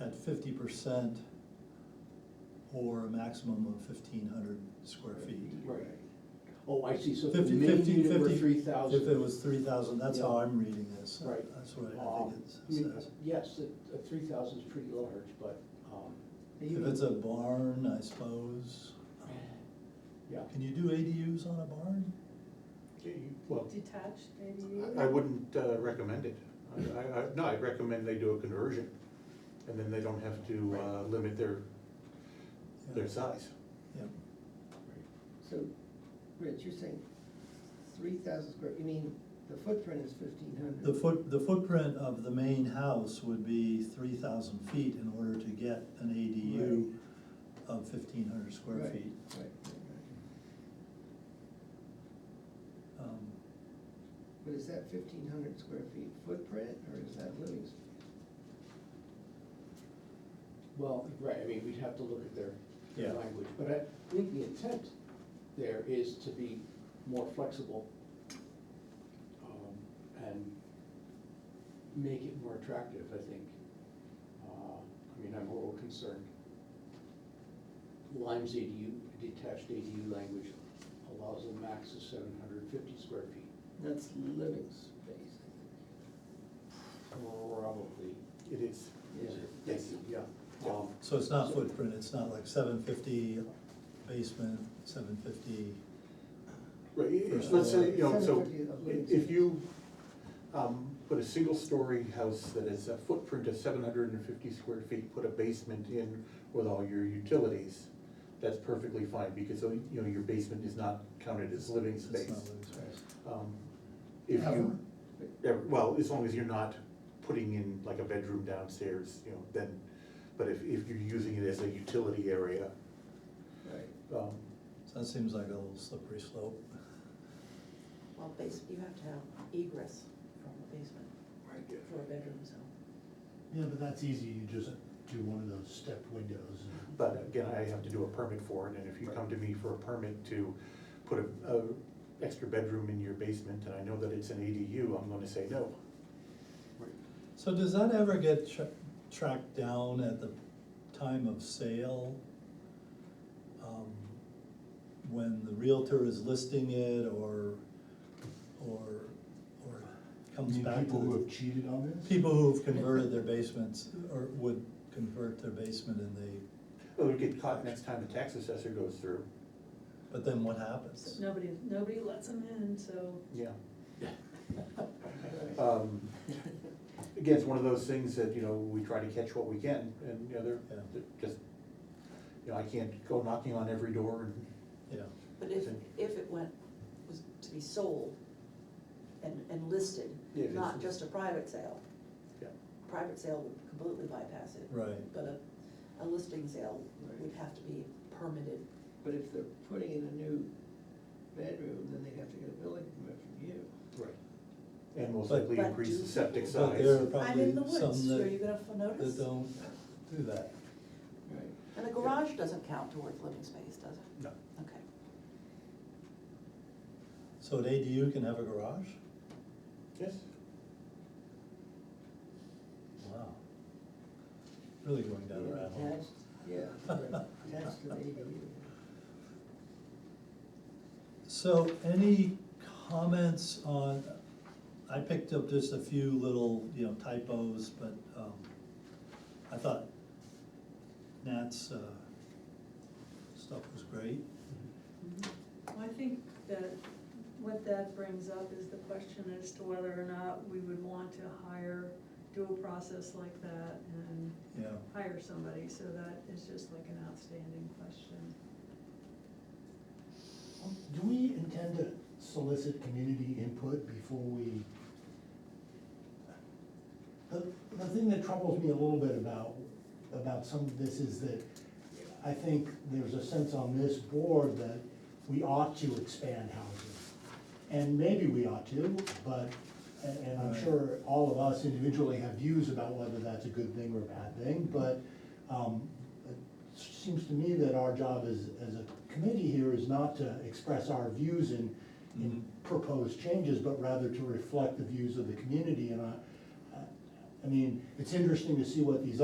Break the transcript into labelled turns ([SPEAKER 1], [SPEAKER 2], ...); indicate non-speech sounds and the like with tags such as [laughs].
[SPEAKER 1] at fifty percent or a maximum of fifteen hundred square feet.
[SPEAKER 2] Right. Oh, I see, so if the
[SPEAKER 1] 50,
[SPEAKER 2] main
[SPEAKER 1] 50,
[SPEAKER 2] unit were
[SPEAKER 1] 50,
[SPEAKER 2] three
[SPEAKER 1] If it
[SPEAKER 2] thousand.
[SPEAKER 1] was three thousand, that's how
[SPEAKER 2] Yeah.
[SPEAKER 1] I'm reading this.
[SPEAKER 2] Right. Um,
[SPEAKER 1] That's what I think it says.
[SPEAKER 2] Yes, a- a three thousand is pretty large, but, um,
[SPEAKER 1] If it's a barn, I suppose,
[SPEAKER 2] yeah.
[SPEAKER 1] can you do ADUs on a barn?
[SPEAKER 2] Well,
[SPEAKER 3] Detached, maybe?
[SPEAKER 4] I, I wouldn't uh, recommend it. I, I, I- no, I'd recommend they do a conversion, and then they don't have to uh, limit their,
[SPEAKER 1] Yeah.
[SPEAKER 4] their size.
[SPEAKER 1] Yeah.
[SPEAKER 5] So, Rich, you're saying three thousand square, you mean the footprint is fifteen hundred?
[SPEAKER 1] The foot, the footprint of the main house would be three thousand feet in order to get an ADU of fifteen hundred square
[SPEAKER 5] Right,
[SPEAKER 1] feet.
[SPEAKER 5] right, right, right.
[SPEAKER 1] Um,
[SPEAKER 5] But is that fifteen hundred square feet footprint, or is that living space?
[SPEAKER 2] well, right, I mean, we'd have to look at their,
[SPEAKER 1] Yeah.
[SPEAKER 2] their language, but I think the intent there is to be more flexible um, and make it more attractive, I think. Uh, I mean, I'm a little concerned. Lime's ADU, detached ADU language allows a max of seven hundred and fifty square feet.
[SPEAKER 5] That's living space.
[SPEAKER 2] Probably,
[SPEAKER 4] It is.
[SPEAKER 2] is it?
[SPEAKER 4] Yeah.
[SPEAKER 2] Thank you, yeah. Um,
[SPEAKER 1] So it's not footprint, it's not like seven fifty basement, seven fifty,
[SPEAKER 4] Right, i- i-
[SPEAKER 1] First
[SPEAKER 4] let's
[SPEAKER 1] floor.
[SPEAKER 4] say, you know, so
[SPEAKER 5] 750 of
[SPEAKER 4] i-
[SPEAKER 5] living
[SPEAKER 4] if
[SPEAKER 5] space.
[SPEAKER 4] you, um, put a single-story house that is a footprint of seven hundred and fifty square feet, put a basement in with all your utilities, that's perfectly fine, because, you know, your basement is not counted as living
[SPEAKER 1] it's not living
[SPEAKER 4] space.
[SPEAKER 1] space.
[SPEAKER 4] Um, If you, yeah, well, as long as you're not putting in like a bedroom downstairs, you know, then, but if, if you're using it as a utility area,
[SPEAKER 5] Right.
[SPEAKER 4] um,
[SPEAKER 1] So that seems like a little slippery slope.
[SPEAKER 3] Well, basement, you have to have egress from the basement for a bedroom, so.
[SPEAKER 6] Yeah, but that's easy, you just do one of those stepped windows. and-
[SPEAKER 4] But again, I have to do a permit for it, and if you come to me for a permit to put a, a extra bedroom in your basement, and I know that it's an ADU, I'm gonna say no.
[SPEAKER 1] So does that ever get tra- tracked down at the time of sale? Um, When the Realtor is listing it or, or, or
[SPEAKER 6] You
[SPEAKER 1] comes
[SPEAKER 6] mean
[SPEAKER 1] back
[SPEAKER 6] people who
[SPEAKER 1] to
[SPEAKER 6] have cheated on this?
[SPEAKER 1] the, people who've converted their basements or would convert their basement and they,
[SPEAKER 4] It'll get caught next time the tax assessor goes through,
[SPEAKER 1] but then what happens?
[SPEAKER 3] So Nobody, nobody lets them in, so.
[SPEAKER 4] yeah.
[SPEAKER 2] Uh,
[SPEAKER 4] Um, Again, it's one of those things that, you know, we try to catch what we can, and, you know, they're,
[SPEAKER 1] Yeah.
[SPEAKER 4] they're just, you know, I can't go knocking on every door and,
[SPEAKER 1] Yeah,
[SPEAKER 3] But if,
[SPEAKER 4] Okay.
[SPEAKER 3] if it went, was to be sold and, and listed,
[SPEAKER 4] Yeah, it's-
[SPEAKER 3] not just a private sale,
[SPEAKER 4] yeah.
[SPEAKER 3] private sale would completely bypass it.
[SPEAKER 1] Right.
[SPEAKER 3] But a, a listing sale would
[SPEAKER 5] Right.
[SPEAKER 3] have to be permitted.
[SPEAKER 5] But if they're putting in a new bedroom, then they have to get a building permit from you.
[SPEAKER 4] Right. And most
[SPEAKER 1] But-
[SPEAKER 4] likely
[SPEAKER 3] But
[SPEAKER 4] increase
[SPEAKER 3] do
[SPEAKER 4] the septic
[SPEAKER 3] people-
[SPEAKER 4] size.
[SPEAKER 1] but there are
[SPEAKER 3] I'm in the
[SPEAKER 1] probably
[SPEAKER 3] woods,
[SPEAKER 1] some
[SPEAKER 3] are you
[SPEAKER 1] that,
[SPEAKER 3] gonna f- notice?
[SPEAKER 1] that don't do that.
[SPEAKER 5] Right.
[SPEAKER 3] And a garage doesn't count towards living space, does it?
[SPEAKER 4] No.
[SPEAKER 3] Okay.
[SPEAKER 1] So an ADU can have a garage?
[SPEAKER 4] Yes,
[SPEAKER 1] Wow. Really going down a rabbit hole.
[SPEAKER 5] Attached, yeah, right,
[SPEAKER 1] [laughs]
[SPEAKER 5] attached to the ADU.
[SPEAKER 1] So any comments on, I picked up just a few little, you know, typos, but, um, I thought Nat's, uh, stuff was great.
[SPEAKER 3] Mm-hmm.
[SPEAKER 7] Well, I think that what that brings up is the question as to whether or not we would want to hire, do a process like that and
[SPEAKER 1] Yeah,
[SPEAKER 7] hire somebody, so that is just like an outstanding question.
[SPEAKER 6] Do we intend to solicit community input before we? The, the thing that troubles me a little bit about, about some of this is that I think there's a sense on this board that we ought to expand housing. And maybe we ought to, but, and, and I'm sure all of us individually have views about whether that's a good thing or a bad thing, but, um, it seems to me that our job as, as a committee here is not to express our views in, in proposed changes, but rather to reflect the views of the community, and I, I- I mean, it's interesting to see what these